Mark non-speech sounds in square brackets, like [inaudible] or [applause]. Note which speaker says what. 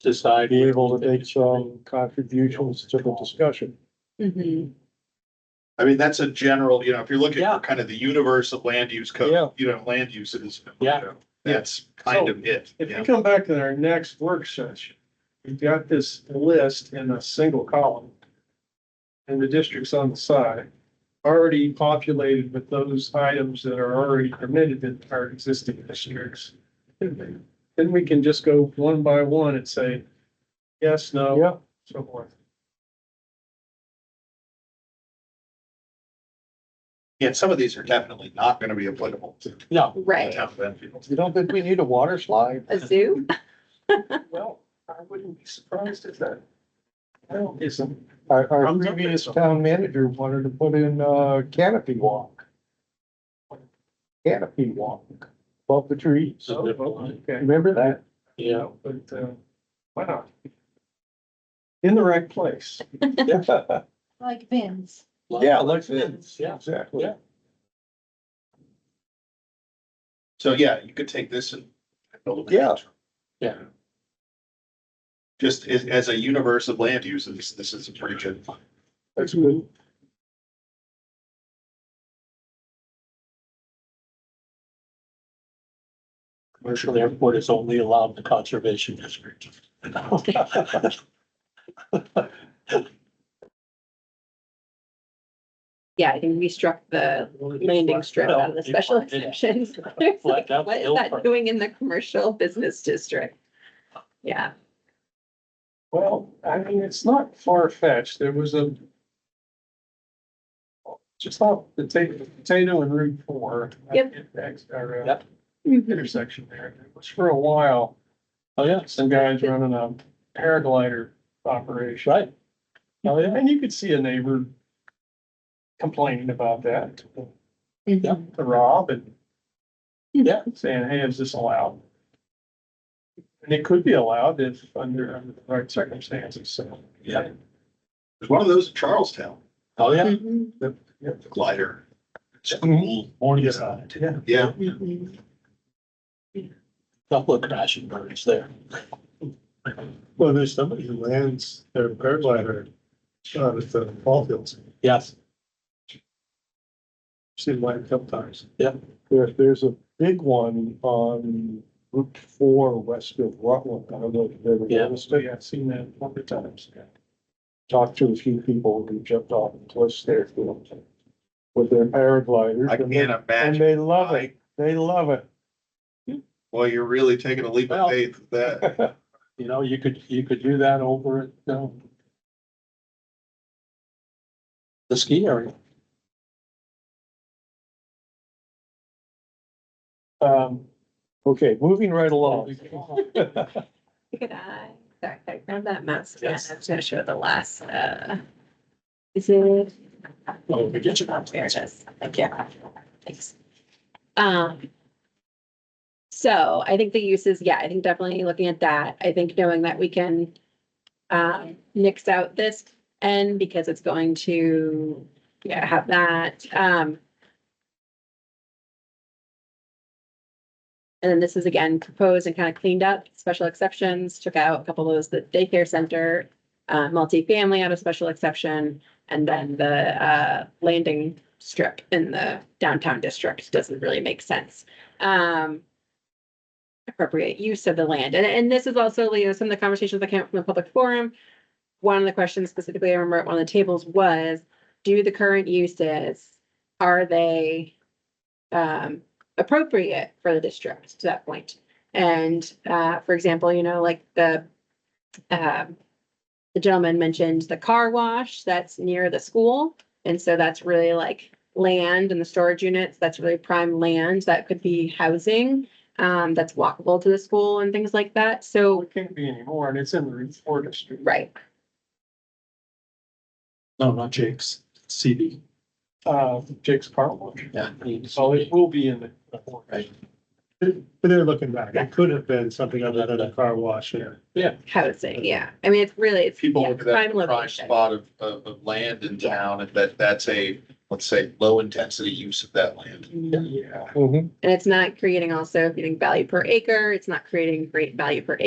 Speaker 1: decide.
Speaker 2: be able to make some contributions to the discussion.
Speaker 3: Mhm.
Speaker 4: I mean, that's a general, you know, if you're looking
Speaker 1: Yeah.
Speaker 4: for kind of the universe of land use
Speaker 2: Yeah.
Speaker 4: code, you know, land uses. you
Speaker 1: Yeah.
Speaker 4: know, That's kind of it.
Speaker 2: If you
Speaker 4: yeah.
Speaker 2: come back to our next work session, we've got this list in a single column. And the districts on the side, already populated with those items that are already permitted in our existing districts. Then we can just go one by one and say, yes, no, so forth.
Speaker 4: And some of these are definitely not gonna be applicable to the
Speaker 1: No,
Speaker 3: Right,
Speaker 4: town of Enfield.
Speaker 2: You don't think we need a water slide?
Speaker 3: a zoo?
Speaker 2: Well, I wouldn't be surprised if that. Well, isn't.
Speaker 5: Our, our
Speaker 2: I'm not-
Speaker 5: previous town manager wanted to put in a canopy walk. Canopy walk above the trees.
Speaker 1: So,
Speaker 2: Okay.
Speaker 5: Remember that?
Speaker 1: yeah,
Speaker 2: But, uh, why not? In the right place.
Speaker 6: Like bins.
Speaker 5: Yeah, like
Speaker 1: like this, yeah.
Speaker 5: Exactly.
Speaker 1: Yeah.
Speaker 4: So, yeah, you could take this and. build a-
Speaker 5: Yeah.
Speaker 1: Yeah.
Speaker 4: Just as, as a universe of land uses, this is a pretty good.
Speaker 5: That's good.
Speaker 1: Commercial airport is only allowed in the conservation district.
Speaker 3: Yeah, I think we struck the [laughs] landing strip out of the special [laughs] exceptions. It's like,
Speaker 1: out the
Speaker 3: What is
Speaker 1: hill
Speaker 3: that
Speaker 1: part.
Speaker 3: doing in the commercial business district? Yeah,
Speaker 2: Well, I mean, it's not far fetched. There was a. Just off the potato, potato and Route four.
Speaker 3: Yep.
Speaker 2: Next, our, uh,
Speaker 1: Yep.
Speaker 2: Intersection there. It was for a while,
Speaker 1: Oh, yeah,
Speaker 2: some guys running a paraglider operation.
Speaker 1: right. Oh, yeah.
Speaker 2: And you could see a neighbor complaining about that to
Speaker 3: Mhm.
Speaker 2: Rob and
Speaker 1: Yeah.
Speaker 2: saying, hey, is this allowed? And it could be allowed if under under the right circumstances, so.
Speaker 1: Yeah.
Speaker 4: There's one of those in Charlestown,
Speaker 1: Oh, yeah.
Speaker 3: Mhm.
Speaker 4: the glider. It's
Speaker 5: Mhm.
Speaker 4: cool.
Speaker 1: Morningside, yeah.
Speaker 4: Yeah,
Speaker 3: Mhm.
Speaker 1: Couple of crashing birds there.
Speaker 7: Well, there's somebody who lands their paraglider out at uh, the ball fields.
Speaker 1: Yes,
Speaker 7: Seen mine a couple times.
Speaker 5: There, there's a big one on Route four west of Rutland. I don't know if you've ever
Speaker 1: Yeah.
Speaker 5: noticed
Speaker 2: So
Speaker 5: it.
Speaker 2: yeah, I've seen that a number of times.
Speaker 5: Talked to a few people who jumped off the cliffs there with their paragliders.
Speaker 4: I
Speaker 5: and they-
Speaker 4: can't
Speaker 5: And
Speaker 4: imagine.
Speaker 5: they love
Speaker 4: why.
Speaker 5: it. They love it.
Speaker 4: Well, you're really taking a leap
Speaker 1: Well-
Speaker 4: of faith with that.
Speaker 1: you know, you could, you could do that over at, um, the ski area.
Speaker 2: Um,
Speaker 5: Okay, moving right along.
Speaker 3: Good eye. Sorry, I grabbed that mouse. Yeah,
Speaker 1: Yes.
Speaker 3: I was gonna show the last, uh, is it?
Speaker 1: Oh, we get you.
Speaker 3: There it is. Thank you. Thanks. Um. So I think the uses, yeah, I think definitely looking at that, I think knowing that we can um nix out this end because it's going to, yeah, have that, um. And then this is again proposed and kind of cleaned up, special exceptions, took out a couple of those, the daycare center, uh, multifamily out of special exception. And then the uh landing strip in the downtown district doesn't really make sense. Um. Appropriate use of the land. And and this is also, Leo, some of the conversations that came up from the public forum. One of the questions specifically, I remember at one of the tables was, do the current uses, are they? Um, appropriate for the district to that point? And uh, for example, you know, like the. Um, the gentleman mentioned the car wash that's near the school. And so that's really like land and the storage units, that's really prime land that could be housing. Um, that's walkable to the school and things like that.
Speaker 2: well,
Speaker 3: So,
Speaker 2: it can't be anymore and it's in the Route four district.
Speaker 3: right,
Speaker 1: No, not Jake's, CB.
Speaker 2: Uh, Jake's Car Wash.
Speaker 1: Yeah.
Speaker 2: So it will be in the.
Speaker 1: Right.
Speaker 7: But they're looking back. It could have been something other than a car wash. and-
Speaker 3: housing, yeah. I mean, it's really, it's.
Speaker 4: People
Speaker 3: yeah,
Speaker 4: look at that
Speaker 3: prime
Speaker 4: prime
Speaker 3: location.
Speaker 4: spot of, of, of land in
Speaker 3: Yeah.
Speaker 4: town and that, that's a, let's say, low intensity use of that land.
Speaker 2: Yeah.
Speaker 5: Mhm.
Speaker 3: And it's not creating also, getting value per acre, it's not creating great value per acre.